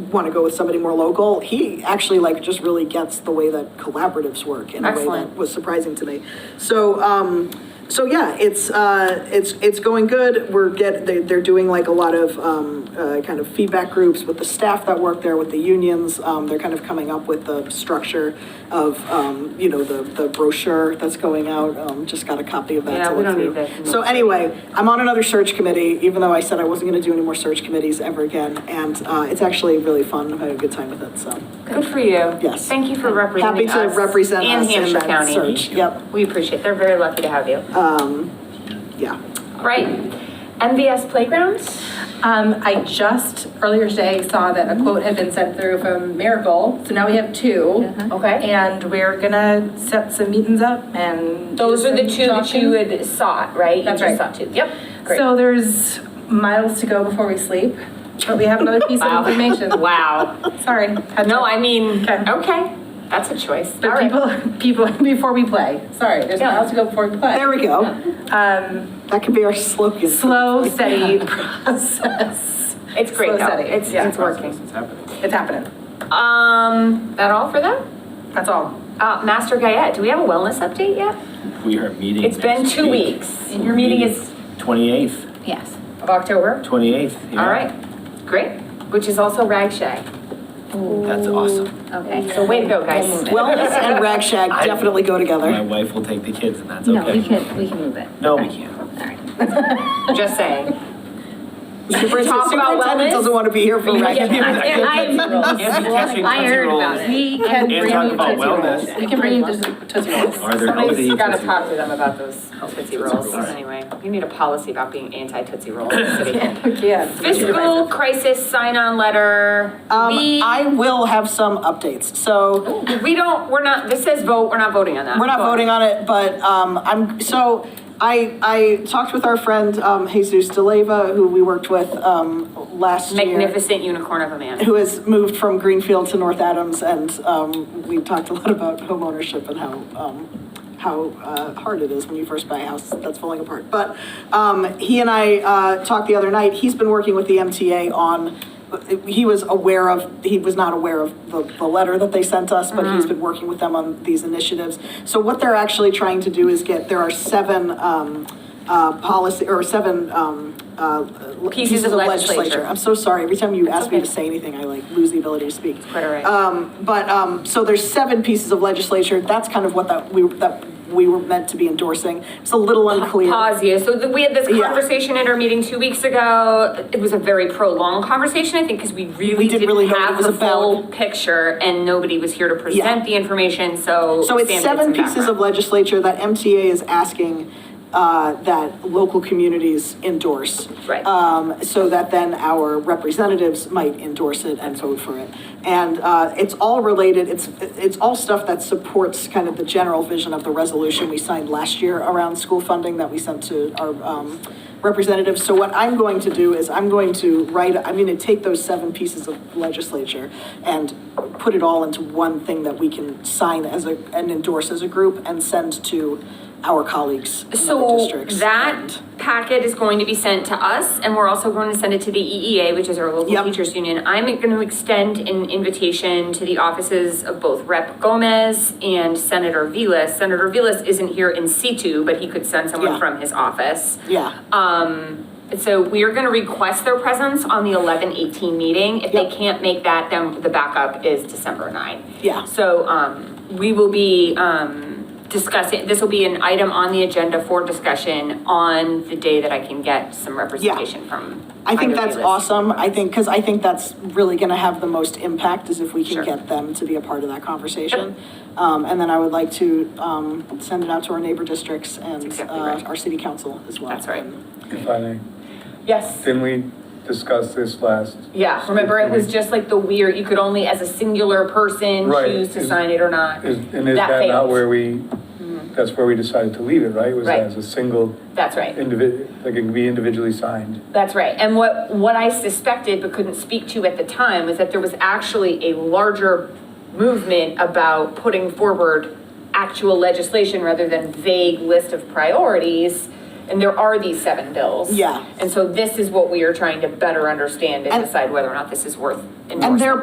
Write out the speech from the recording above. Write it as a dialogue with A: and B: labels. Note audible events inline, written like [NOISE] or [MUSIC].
A: want to go with somebody more local, he actually like just really gets the way that collaboratives work in a way that
B: Excellent.
A: was surprising to me. So, um, so yeah, it's, uh, it's, it's going good. We're get, they, they're doing like a lot of, um, uh, kind of feedback groups with the staff that work there, with the unions. Um, they're kind of coming up with the structure of, um, you know, the, the brochure that's going out. Um, just got a copy of that.
B: Yeah,
A: to
B: we
A: look
B: don't need
A: through.
B: that.
A: So anyway, I'm on another search committee, even though I said I wasn't gonna do any more search committees ever again. And, uh, it's actually really fun. I've had a good time with it, so.
B: Good for you.
A: Yes.
B: Thank you for representing
A: Happy
B: us.
A: to represent us in
B: Hampshire
A: that
B: County.
A: search. Uh, Yep,
B: We appreciate, they're very lucky to have you.
A: yeah.
B: Right, MVS Playgrounds?
C: Um, I just earlier today saw that
B: Mm-hmm.
C: a quote had been sent through from Miracle, so now we have two.
B: Uh-huh. Okay.
C: And we're gonna set some meetings up and.
B: Those are the two that you
C: Talking.
B: had sought, right? You
C: That's
B: just Sought
C: right.
B: two, yep, great.
C: So there's miles to go before we sleep, but we have another piece
B: Wow.
C: of
B: [LAUGHS]
C: information.
B: Wow.
C: Sorry.
B: [LAUGHS]
C: had
B: No,
C: to-
B: I mean,
C: Okay.
B: okay, that's a choice. All
C: But
B: right.
C: people, people, [LAUGHS] before we play, sorry, there's
B: Yeah.
C: miles to go before we play.
A: There we go.
C: Um,
A: That could be our slogan.
B: [LAUGHS]
C: slow, steady process.
B: It's great
C: Slow
B: though,
C: steady.
B: it's,
C: Yeah.
B: it's working.
C: It's happening.
B: Um, that all for them?
C: That's all.
B: Uh, Master Guyette, do we have a wellness update yet?
D: We are meeting.
B: It's been
D: next
B: two
D: week.
B: weeks. Your meeting is,
D: 28th,
B: yes, of October?
D: 28th. yeah.
B: All right, great, which is also Rag Shack.
D: That's awesome.
B: Okay, so way to go, guys.
A: Wellness and Rag Shack
D: I-
A: definitely go
D: My
A: together.
D: wife will take the kids and that's
E: No, we
D: okay.
E: can, we can move it.
D: No, we can't.
E: All right.
B: Just saying.
A: Superintendent
B: talk about
A: superintendent
B: wellness?
A: doesn't want to be here for Rag
D: Yeah,
A: Shack.
D: I
B: [LAUGHS]
D: can't be catching
E: I
D: Tootsie
E: heard
D: Rolls.
E: about it.
C: We can
D: And
C: bring
D: talk
C: you
D: about
C: Tootsie Rolls.
D: wellness.
C: We can bring you to Tootsie Rolls.
D: Are there healthy
B: Somebody's gotta
D: Tootsie
B: talk to
D: Rolls?
B: them about those Tootsie Rolls, anyway. You need a policy about being anti-Tootsie Roll in the city.
C: Yeah.
B: [LAUGHS] Fiscal crisis sign-on letter.
A: Um,
B: We,
A: I will have some updates. So
B: Oh, we don't, we're not, this says vote, we're not voting on that.
A: we're not voting on it, but, um, I'm, so I, I talked with our friend, um, Jesus DeLeva, who we worked with, um, last year.
B: Magnificent unicorn of a man.
A: who has moved from Greenfield to North Adams, and um, we talked a lot about homeownership and how um, how uh, hard it is when you first buy a house that's falling apart. But um, he and I uh, talked the other night. He's been working with the MTA on. He was aware of. He was not aware of the, the letter that they sent us, but
B: Mm-hmm.
A: he's been working with them on these initiatives. So what they're actually trying to do is get. There are seven. Um, uh, policy or seven um, uh,
B: Pieces of legislature.
A: I'm so sorry. Every time you
B: That's
A: ask me to
B: okay.
A: say anything, I like lose the ability to speak.
B: Quite all right.
A: Um, but um, so there's seven pieces of legislature. That's kind of what that we that we were meant to be endorsing. It's a little unclear.
B: Pause you. So the- we had this
A: Yeah.
B: conversation at our meeting two weeks ago. It was a very prolonged conversation, I think, because we really
A: We didn't really
B: didn't
A: know what it
B: have
A: was
B: the full
A: about.
B: picture and nobody was here to present the information, so.
A: So it's
B: Sam did
A: seven
B: some
A: pieces
B: background.
A: of legislature that MTA is asking uh, that local communities endorse.
B: Right.
A: Um, so that then our representatives might endorse it and vote for it. And uh, it's all related, it's, it's all stuff that supports kind of the general vision of the resolution we signed last year around school funding that we sent to our um, representatives. So what I'm going to do is I'm going to write, I'm going to take those seven pieces of legislature and put it all into one thing that we can sign as a, and endorse as a group and send to our colleagues in other
B: So
A: districts. And-
B: that packet is going to be sent to us, and we're also going to send it to the EEA, which is our local
A: Yep.
B: teachers union. I'm going to extend an invitation to the offices of both Rep. Gomez and Senator Vilas. Senator Vilas isn't here in situ, but he could send
A: Yeah.
B: someone from his office.
A: Yeah.
B: So we are going to request their presence on the 11-18 meeting. If they
A: Yep.
B: can't make that, then the backup is December 9.
A: Yeah.
B: So um, we will be um, discussing, this will be an item on the agenda for discussion on the day that I can get some representation from.
A: I think
B: either
A: that's
B: of you.
A: awesome. I think, because I think that's really going to have the most impact is if we
B: Sure.
A: can get them to be a part of that conversation. Um, and then I would like to, um, send it out to our neighbor districts and,
B: exactly
A: uh,
B: right.
A: our city council as well.
B: That's right.
F: If I may,
B: Yes,
F: didn't we discuss this last?
B: yeah, remember it was just like the weird, you could only as a singular person
F: Right.
B: choose to sign it or not.
F: Is- And is
B: That
F: that
B: failed.
F: not
B: Mm-hmm.
F: where we, that's where we decided to leave it, right? Was
B: Right.
F: as a single
B: That's right.
F: individual, like it can be individually signed.
B: That's right. And what, what I suspected but couldn't speak to at the time was that there was actually a larger movement about putting forward actual legislation rather than vague list of priorities. And there are these seven bills.
A: Yeah.
B: And so this is what we are trying to better understand and
A: And-
B: decide whether or not this is worth endorsing.
A: And they're